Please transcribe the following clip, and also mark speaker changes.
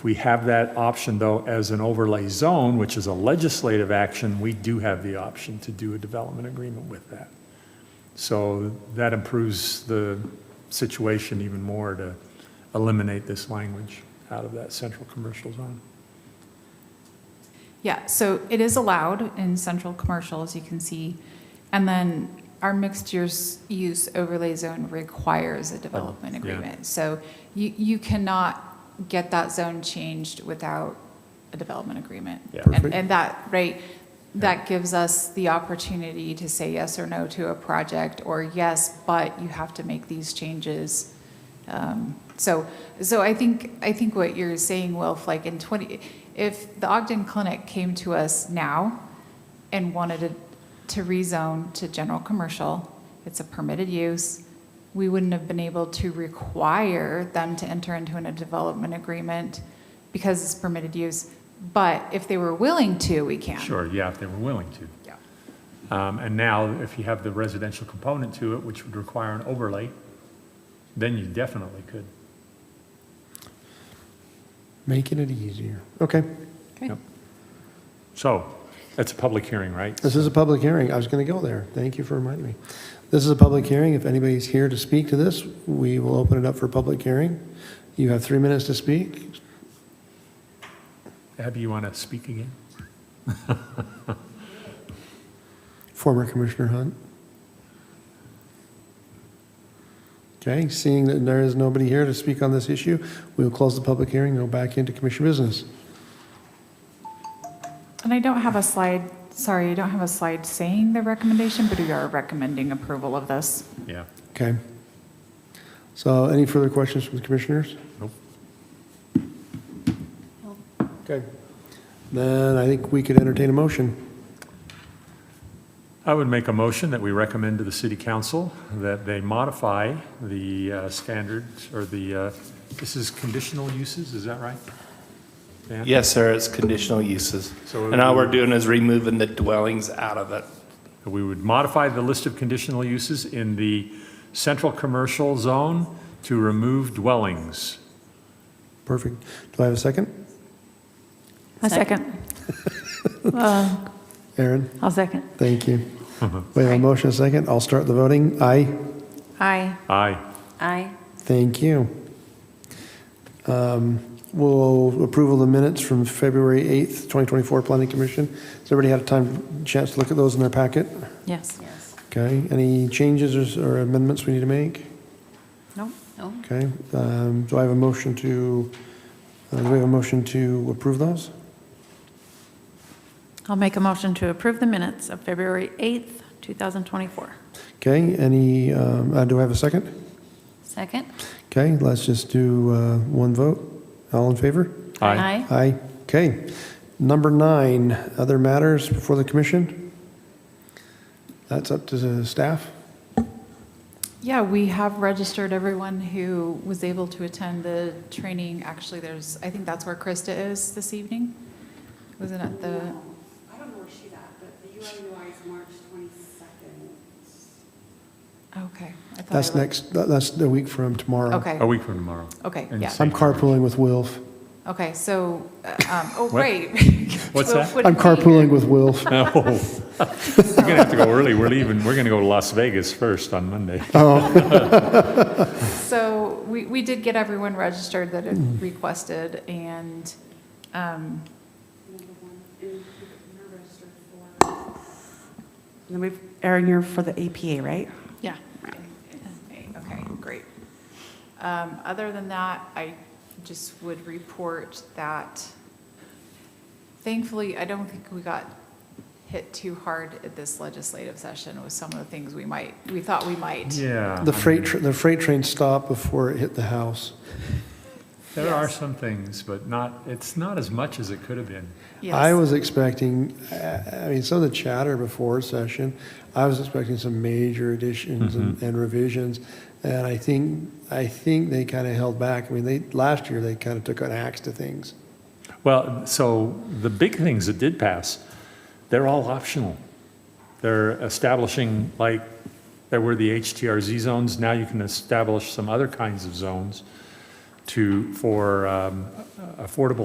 Speaker 1: We have that option, though, as an overlay zone, which is a legislative action, we do have the option to do a development agreement with that. So that improves the situation even more to eliminate this language out of that central commercial zone.
Speaker 2: Yeah, so it is allowed in central commercial, as you can see. And then our mixed use, use overlay zone requires a development
Speaker 1: yeah.
Speaker 2: agreement. So you, you cannot get that zone changed without a development agreement.
Speaker 3: Yeah.
Speaker 2: And,
Speaker 1: Perfect.
Speaker 2: and that, right, that gives us the opportunity to say yes or no to a project, or yes, but you have to make these changes. Um, So, so I think, I think what you're saying, Wilf, like in 20, if the Ogden Clinic came to us now and wanted to- to rezone to general commercial, it's a permitted use, we wouldn't have been able to require them to enter into a development agreement because it's permitted use. But if they were willing to, we can.
Speaker 1: Sure, yeah, if they were willing to.
Speaker 2: Yeah.
Speaker 1: Um, And now, if you have the residential component to it, which would require an overlay, then you definitely could.
Speaker 3: Making it easier. Okay,
Speaker 1: Yep. So, that's a public hearing, right?
Speaker 3: this is a public hearing. I was going to go there. Thank you for reminding me. This is a public hearing. If anybody's here to speak to this, we will open it up for public hearing. You have three minutes to speak.
Speaker 1: Abby, you want to speak again?
Speaker 3: Former Commissioner Hunt. Okay, seeing that there is nobody here to speak on this issue, we will close the public hearing and go back into commission business.
Speaker 2: And I don't have a slide, sorry, I don't have a slide saying the recommendation, but we are recommending approval of this.
Speaker 1: Yeah.
Speaker 3: Okay. So any further questions from the commissioners?
Speaker 1: Nope.
Speaker 3: Okay. Then I think we could entertain a motion.
Speaker 1: I would make a motion that we recommend to the city council that they modify the uh, standards or the, uh, this is conditional uses, is that right? Dan?
Speaker 4: Yes, sir, it's conditional uses.
Speaker 1: So
Speaker 4: And all
Speaker 1: we-
Speaker 4: we're doing is removing the dwellings out of it.
Speaker 1: We would modify the list of conditional uses in the central commercial zone to remove dwellings.
Speaker 3: Perfect. Do I have a second?
Speaker 5: A second. Uh,
Speaker 3: Aaron,
Speaker 5: I'll second.
Speaker 3: thank you. We have a motion, a second. I'll start the voting. Aye.
Speaker 5: Aye.
Speaker 1: Aye.
Speaker 5: Aye.
Speaker 3: Thank you. Um, We'll approve of the minutes from February 8th, 2024 Planning Commission. Has everybody had a time, chance to look at those in their packet?
Speaker 5: Yes.
Speaker 3: Okay, any changes or or amendments we need to make?
Speaker 5: No. No.
Speaker 3: Okay, um, do I have a motion to, uh, do we have a motion to approve those?
Speaker 5: I'll make a motion to approve the minutes of February 8th, 2024.
Speaker 3: Okay, any, um, uh, do I have a second?
Speaker 5: Second.
Speaker 3: Okay, let's just do uh, one vote. All in favor? Aye. Okay. Number nine, other matters before the commission? That's up to the staff?
Speaker 2: Yeah, we have registered everyone who was able to attend the training. Actually, there's, I think that's where Krista is this evening. Wasn't it the,
Speaker 6: I don't know where she's at, but the UIUI is March 22nd.
Speaker 2: okay. I thought I
Speaker 3: That's
Speaker 2: looked-
Speaker 3: next, uh, that- that's the week from tomorrow.
Speaker 2: Okay,
Speaker 1: A week from tomorrow.
Speaker 2: okay,
Speaker 1: And
Speaker 2: yeah.
Speaker 1: so-
Speaker 3: I'm carpooling with Wilf.
Speaker 2: Okay, so, uh, um, oh,
Speaker 1: What?
Speaker 2: great.
Speaker 1: What's that?
Speaker 3: I'm carpooling with Wilf.
Speaker 1: Oh, we're gonna have to go early. We're leaving, we're gonna go to Las Vegas first on Monday.
Speaker 2: So we, we did get everyone registered that had
Speaker 3: Mm-hmm.
Speaker 2: requested, and um,
Speaker 6: Number one, and you're registered for. And then we've, Erin, you're for the APA, right?
Speaker 2: Yeah. Okay, great. Um, Other than that, I just would report that thankfully, I don't think we got hit too hard at this legislative session with some of the things we might, we thought we might.
Speaker 1: Yeah.
Speaker 3: The freight, tr- the freight train stopped before it hit the house.
Speaker 1: There are some things, but not, it's not as much as it could have been.
Speaker 3: I
Speaker 2: Yes.
Speaker 3: was expecting, I I mean, some of the chatter before session, I was expecting some major additions and and revisions. And I think, I think they kind of held back. I mean, they, last year, they kind of took an axe to things.
Speaker 1: Well, so the big things that did pass, they're all optional. They're establishing, like, there were the HTRZ zones, now you can establish some other kinds of zones. to, for um, affordable